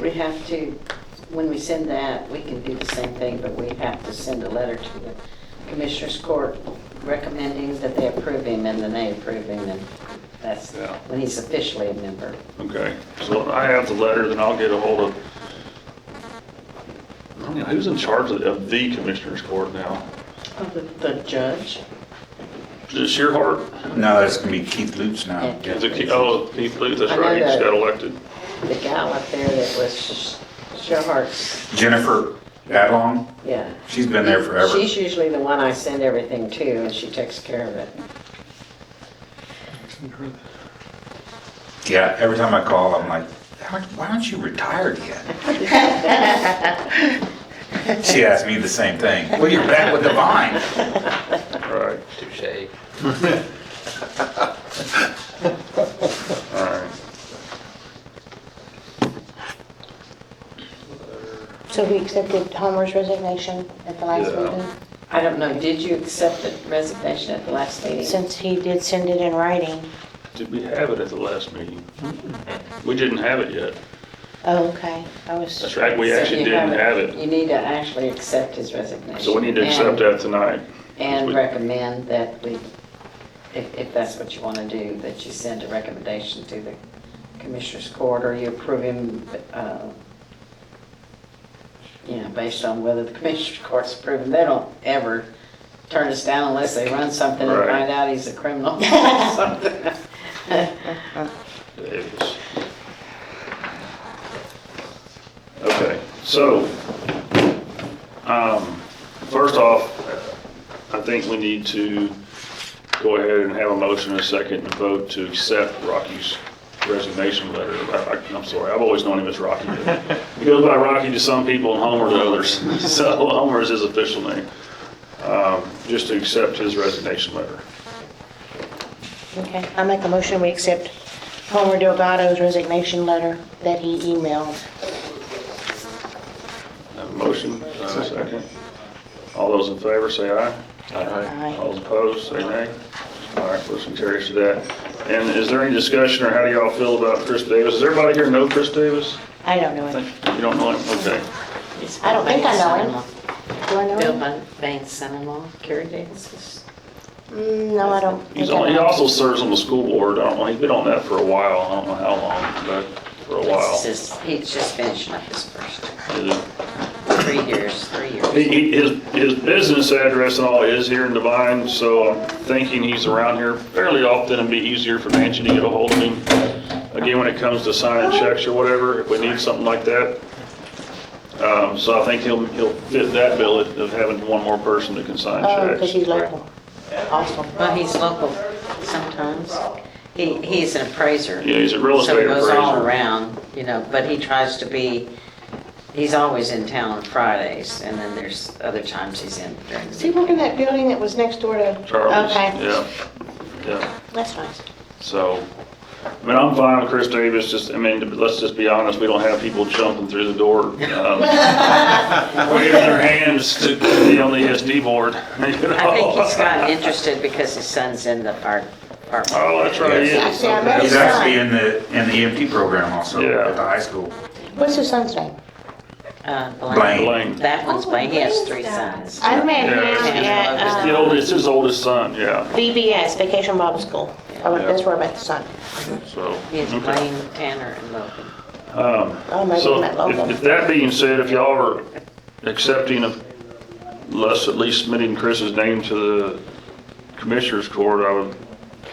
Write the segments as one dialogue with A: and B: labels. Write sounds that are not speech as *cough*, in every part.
A: We have to, when we send that, we can do the same thing, but we have to send a letter to the Commissioners Court recommending that they approve him, and then they approve him, and that's
B: Yeah.
A: when he's officially a member.
B: Okay, so I have the letter, then I'll get a hold of, I don't know, who's in charge of- of the commissioners court now?
A: Oh, The judge?
B: Is it Shearhart?
C: No, that's gonna be Keith Lutz now.
A: Yeah.
B: Is it, Ke- oh, Keith Lee, that's
A: I know
B: right, he just
A: that.
B: got elected.
A: The gal up there that was Sherhart's,
C: Jennifer Badlong,
A: yeah.
C: she's been there forever.
A: She's usually the one I send everything to, and she takes care of it.
C: Yeah, every time I call, I'm like, "How- why aren't you retired yet? She asks me the same thing. Well, you're back with the vine.
B: Right,
D: Touche.
B: all right.
E: So we accepted Homer's resignation at the last
B: Yeah.
E: meeting,
A: I don't know, did you accept the resignation at the last meeting?
E: since he did send it in writing.
B: Did we have it at the last meeting? We didn't have it yet.
E: Oh, okay, I was.
B: That's right, we
A: So
B: actually
A: you
B: didn't have
A: haven't-
B: it.
A: You need to actually accept his resignation.
B: So we need to accept
A: and-
B: that tonight.
A: And
B: We-
A: recommend that we, if, if that's what you want to do, that you send a recommendation to the Commissioners Court, or you approve him, uh, you know, based on whether the Commissioners Court's approving, they don't ever turn us down unless they run something and
B: Right.
A: find out he's a
E: *laughs*
A: criminal *laughs* or something.
B: Davis. Okay, so, um, first off, I think we need to go ahead and have a motion and a second and vote to accept Rocky's resignation letter. I- I- I'm sorry, I've always known him as Rocky. He goes by Rocky to some people and Homer to others, *laughs* so Homer is his official name. Um, Just to accept his resignation letter.
E: Okay, I make a motion, we accept Homer Delgado's resignation letter that he emailed.
B: Have a motion, have a second. All those in favor, say aye.
E: Aye.
B: All opposed, say nay. All right, motion carries to that. And is there any discussion, or how do y'all feel about Chris Davis? Does everybody here know Chris Davis?
E: I don't know
B: I
E: him.
B: think You don't know him? Okay.
E: I don't think I know him. Do I know
A: Bill
E: him?
A: Van- Vane's son-in-law, Kerry Davis.
E: Mm, No, I don't.
B: He's
E: think I
B: on, he
E: know him.
B: also serves on the school board. I don't know, he's been on that for a while. I don't know how long, but for a while.
A: This is- He's just finishing up his first
B: Is it-
A: three years, three years.
B: He- he- His, his business address and all is here in Divine, so I'm thinking he's around here fairly often. It'd be easier for Nancy to get a hold of him. Again, when it comes to signing checks or whatever, if we need something like that. Um, so I think he'll, he'll fit that bill of of having one more person that can sign
E: Oh,
B: checks.
E: because he's local. Awesome.
A: Well, he's local sometimes. He, he's an appraiser.
B: Yeah, he's a real
A: So he
B: estate
A: goes all
B: appraiser.
A: around, you know, but he tries to be, he's always in town on Fridays, and then there's other times he's in during
E: Is he
A: the.
E: working that building that was next door to?
B: Charles,
E: Okay,
B: yeah, yeah.
E: that's nice.
B: So, I mean, I'm fine with Chris Davis, just, I mean, let's just be honest, we don't have people jumping through the door, um, waving their hands to be on the ESD board. *laughs* I
A: I think
B: *laughs*
A: he's gotten interested because his son's in the fire department.
B: Oh, that's right, he is.
E: Yeah, I bet
C: He's
E: his
C: actually
E: son.
C: in the, in the EMT program also
B: Yeah.
C: at the high school.
E: What's his son's name?
A: Uh,
C: Blaine.
B: Blaine.
A: That one's Blaine, he has three sons.
E: I met
B: Yeah, it's
E: him
B: his- It's
E: at
B: the
E: um,
B: oldest, it's his oldest son, yeah,
E: VBS, Vacation Bible School. Oh,
B: Yeah.
E: That's where I met the son.
B: so.
A: He has
B: okay.
A: Blaine, Tanner, and Logan.
E: Oh, maybe
B: So
E: I met
B: if-
E: Logan.
B: if that being said, if y'all are accepting of, us at least submitting Chris's name to the commissioners court, I would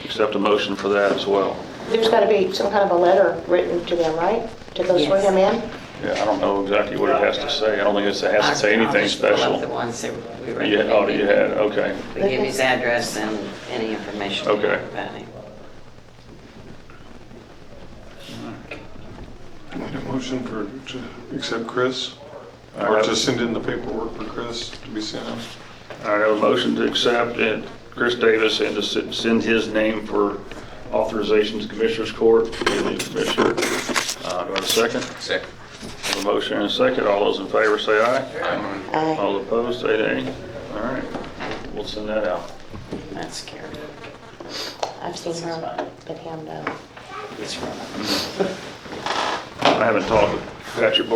B: accept a motion for that as well.
E: There's got to be some kind of a letter written to them, right? To go swear
A: Yes.
E: him in?
B: Yeah, I don't know exactly what it has to say. I don't think it's- it has to
A: I'll-
B: say
A: I'll
B: anything
A: just pull up The
B: special.
A: ones that we
B: You had, oh,
A: recommended.
B: you had, okay.
A: We give his address and any information we
B: Okay.
A: have about him.
F: Need a motion for, to accept Chris,
B: All
F: or
B: right.
F: to send in the paperwork for Chris to be sent out.
B: All right, I have a motion to accept it, Chris Davis, and to sen- send his name for authorization to Commissioners Court, Daily Commissioner. Uh, do I have a second?
D: Second.
B: Have A motion and a second. All those in favor say aye.
E: Aye.
B: All opposed, say nay. All right, we'll send that out.
A: That's scary.
E: I've seen her, but him, no.
A: He's from.
B: I haven't talked with Patrick